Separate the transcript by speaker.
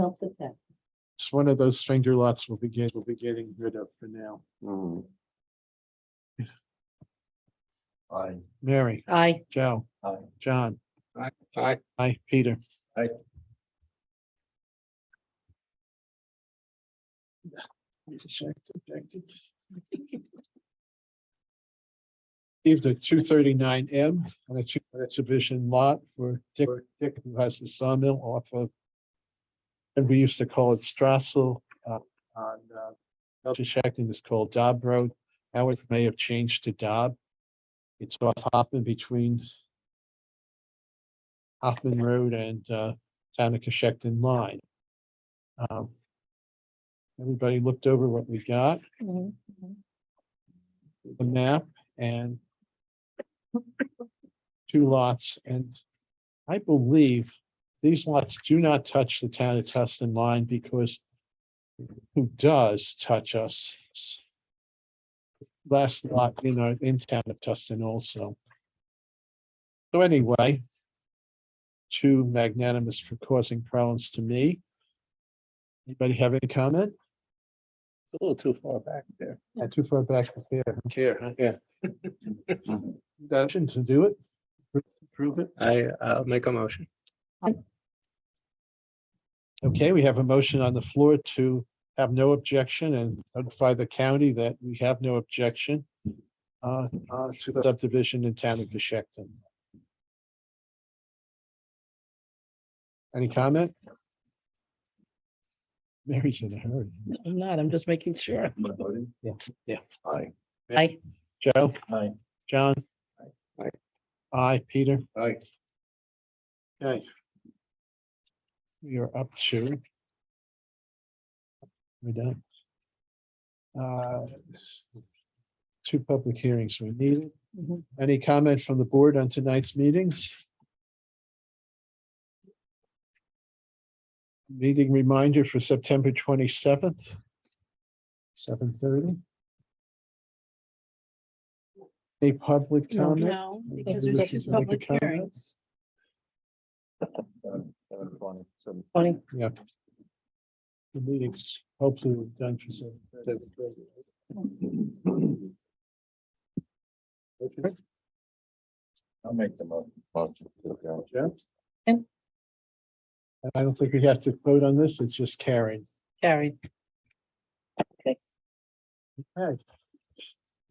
Speaker 1: It's one of those finger lots we'll be getting, we'll be getting rid of for now.
Speaker 2: Mm. Aye.
Speaker 1: Mary,
Speaker 3: Aye.
Speaker 1: Joe,
Speaker 2: Aye.
Speaker 1: John,
Speaker 4: Aye.
Speaker 1: I, Peter.
Speaker 2: Aye.
Speaker 1: Leave the two thirty-nine M on a two exhibition lot for Dick, Dick who has the sawmill off of. And we used to call it Strassel, uh, on, uh, Belchactin is called Dobb Road. Now it may have changed to Dobb. It's off Hoffman between Hoffman Road and uh, Town of Coshecton Line. Um, Everybody looked over what we got,
Speaker 3: Mhm.
Speaker 1: the map and two lots, and I believe these lots do not touch the Town of Tustin line because who does touch us? Last lot in our, in Town of Tustin also. So anyway, too magnanimous for causing problems to me. Anybody have any comment?
Speaker 4: A little too far back there.
Speaker 1: Not Too far back to here.
Speaker 4: Care, huh? yeah.
Speaker 1: Motion to do it? Prove it?
Speaker 4: I, I'll make a motion.
Speaker 1: Okay, we have a motion on the floor to have no objection and notify the county that we have no objection uh, uh, to the subdivision in Town of Geshecton. Any comment? Mary's in a hurry.
Speaker 3: I'm not, I'm just making sure.
Speaker 2: Am I voting?
Speaker 1: Yeah. Yeah.
Speaker 2: Aye.
Speaker 3: Aye.
Speaker 1: Joe,
Speaker 2: Aye.
Speaker 1: John?
Speaker 4: Aye.
Speaker 1: Aye, Peter?
Speaker 2: Aye.
Speaker 1: Okay. We are up to. We're done. Uh, Two public hearings we needed.
Speaker 3: Mhm.
Speaker 1: Any comment from the board on tonight's meetings? Meeting reminder for September twenty-seventh, seven thirty. Any public comment?
Speaker 3: No, because
Speaker 1: because this
Speaker 3: this
Speaker 1: is
Speaker 3: is
Speaker 1: public
Speaker 3: public
Speaker 1: comment.
Speaker 3: hearings.
Speaker 2: Seven- seven twenty, seven-
Speaker 3: Tony,
Speaker 1: Yeah. The meetings hopefully we're done for seven. thirty.
Speaker 2: I'll make the mo- motion.
Speaker 1: Yeah.
Speaker 3: And-
Speaker 1: And I don't think we have to vote on this, it's just carried.
Speaker 3: carried.
Speaker 1: Okay.